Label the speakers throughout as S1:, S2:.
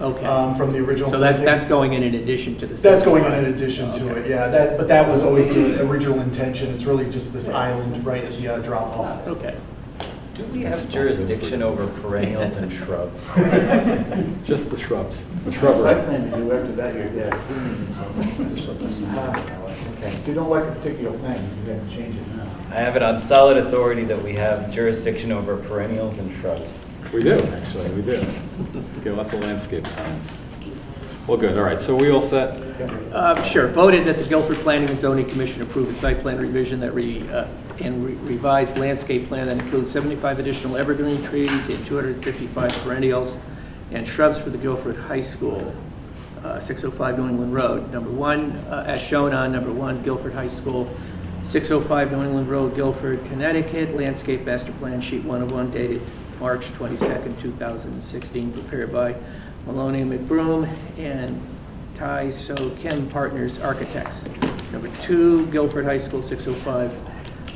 S1: Okay.
S2: um, from the original.
S1: So that,
S2: planting.
S1: that's going in in addition to the.
S2: That's going in
S1: setback.
S2: in addition to
S1: Okay.
S2: it, yeah, that, but that was always the original intention, it's really just this island right at the uh, drop off.
S1: Okay.
S3: Do we have jurisdiction over perennials and shrubs?
S4: Just the shrubs.
S5: Site plan review, after that, you're there, three meetings on this, so that's half an hour.
S3: Okay.
S5: If you don't like a particular thing, you can change it now.
S3: I have it on solid authority that we have jurisdiction over perennials and shrubs.
S4: We do, actually, we do. Okay, lots of landscape comments. Well, good, all right, so we all set?
S1: Uh, Sure, voted that the Guilford Planning and Zoning Commission approve a site plan revision that re, uh, and re- revised landscape plan that includes 75 additional evergreen trees and 255 perennials and shrubs for the Guilford High School, uh, 605 New England Road. Number one, uh, as shown on number one, Guilford High School, 605 New England Road, Guilford, Connecticut, landscape master plan sheet 101 dated March 22nd, 2016, prepared by Maloney and McBroom and Ty So Kim Partners Architects. Number two, Guilford High School, 605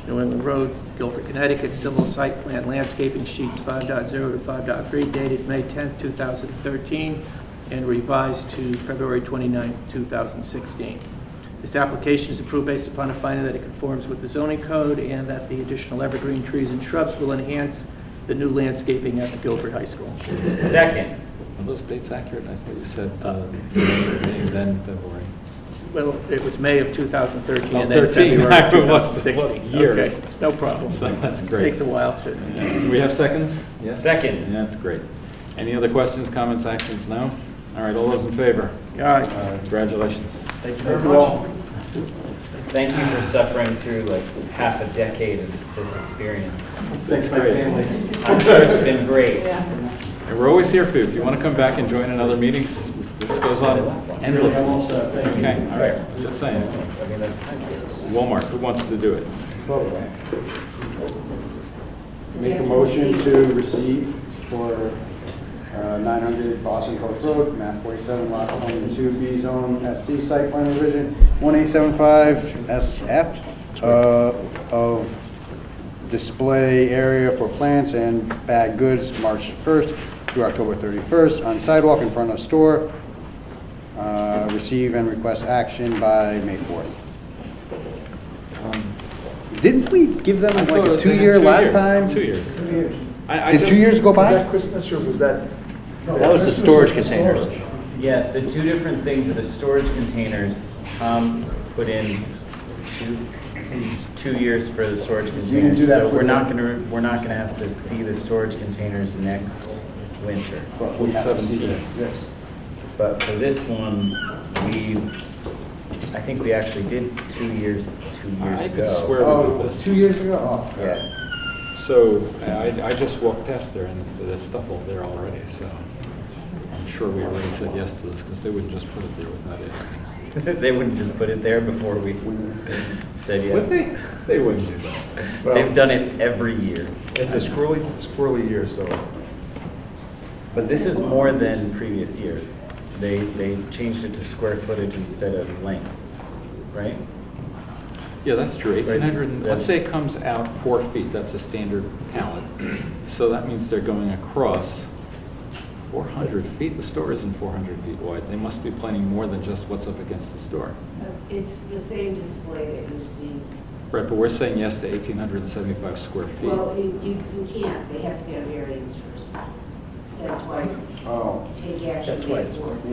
S1: New England Road, Guilford, Connecticut, Civil Site Plan Landscaping Sheets 5.0 to 5.3 dated May 10, 2013, and revised to February 29, 2016. This application is approved based upon a finding that it conforms with the zoning code and that the additional evergreen trees and shrubs will enhance the new landscaping at the Guilford High School.
S3: Second,
S4: Are those dates accurate? I thought you said uh, May, then February.
S1: Well, it was May of 2013
S4: Oh,
S1: and then
S4: 13.
S1: February
S4: I
S1: of
S4: was- was
S1: 2016.
S4: years.
S1: Okay, No problem.
S4: So that's great.
S1: Takes a while to,
S4: Do we have seconds? Yes?
S3: Second.
S4: Yeah, That's great. Any other questions, comments, actions? No? All right, all those in favor?
S1: all right.
S4: Uh, Congratulations.
S2: Thank you very much.
S3: thank you for suffering through like half a decade of this experience.
S5: Thanks, my
S4: great.
S5: family.
S3: I'm sure it's been great.
S4: And we're always here for you. If you want to come back and join another meetings, this goes on endlessly. Okay, all right, just saying. Walmart, who wants to do it?
S6: Make a motion to receive for uh, 900 Boston Coast Road, map 47, lot 22, B zone, SC site plan revision, 1875 SF uh, of display area for plants and bag goods, March 1st through October 31st, on sidewalk in front of store. Uh, Receive and request action by May 4th. Didn't we give
S4: Um,
S6: them
S4: I
S6: like
S4: thought it
S6: a
S4: was- they had
S6: two-year
S4: two
S6: last
S4: years.
S6: time?
S4: Two years. I- I
S6: Did
S4: just-
S6: two years go
S5: Was
S6: by?
S5: that Christmas or was that?
S7: That was the storage containers.
S3: Yeah, the two different things are the storage containers. Tom put in two, two years for the storage
S6: do
S3: containers.
S6: that
S3: So
S6: for
S3: we're
S6: the-
S3: not gonna, we're not gonna have to see the storage containers next winter.
S6: But we have to see
S4: 17.
S6: that, yes.
S3: But for this one, we, I think we actually did two years, two years
S4: I
S3: ago.
S4: could swear
S6: Oh,
S4: we
S6: it
S4: did
S6: was
S4: this.
S6: two years ago? Oh.
S3: Yeah.
S4: So I, I- I just walked past there and it's- there's stuff over there already, so I'm sure we already said yes to this because they wouldn't just put it there without asking.
S3: They wouldn't just put it there before we said yes.
S4: Would they? They wouldn't do that.
S3: They've done it every year.
S5: It's a squirrely, squirrely year, so.
S3: But this is more than previous years. They, they changed it to square footage instead of length, right?
S4: Yeah, that's true.
S3: Right.
S4: 1,800, and- let's
S3: Yeah.
S4: say it comes out four feet, that's the standard pallet. So that means they're going across 400 feet. The store isn't 400 feet wide. They must be planning more than just what's up against the store.
S8: Uh, It's the same display that you see.
S4: Right, but we're saying yes to 1,875 square feet.
S8: Well, you, you you can't, they have to get a variance first. That's why
S6: Oh,
S8: take action.
S6: that's why
S8: May
S6: it's worth
S8: fourth.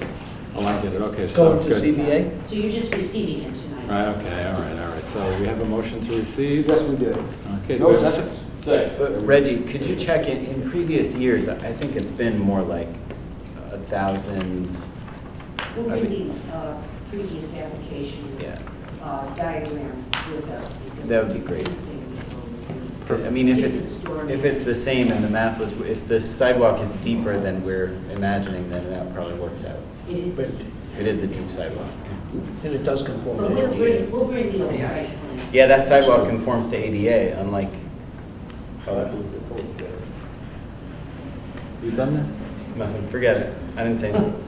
S6: May 4th.
S4: Oh, I get it, okay, so, good.
S8: So you're just receiving it tonight.
S4: Right, okay, all right, all right, so we have a motion to receive?
S6: Yes, we did.
S4: Okay.
S6: No
S4: do we have a
S6: seconds.
S3: But Reggie, could you check in, in previous years, I think it's been more like a thousand,
S8: We'll
S3: I
S8: bring
S3: mean-
S8: the uh, previous application
S3: Yeah.
S8: uh, diagram with us. because
S3: That would be
S8: it's the
S3: great.
S8: same thing we've always used.
S3: I mean, if it's,
S8: stored-
S3: if it's the same and the math was, if the sidewalk is deeper than we're imagining, then that probably works out.
S8: It is,
S7: But-
S3: It is a deep sidewalk.
S7: And it does conform
S8: but
S7: to
S8: we'll bring,
S7: ADA.
S8: we'll bring the old site plan.
S3: Yeah, that sidewalk conforms to ADA, unlike,
S4: You done
S3: nothing, forget it, I didn't say anything.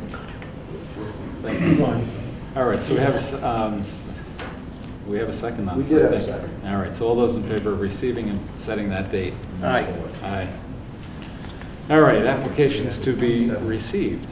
S4: that? All right, so we have, a s- um, s- we have a second on
S6: We
S4: this,
S6: did
S4: I
S6: have a
S4: think.
S6: second.
S4: All right, so all those in favor of receiving and setting that date?
S1: Aye.
S4: Aye. All right, applications to be received.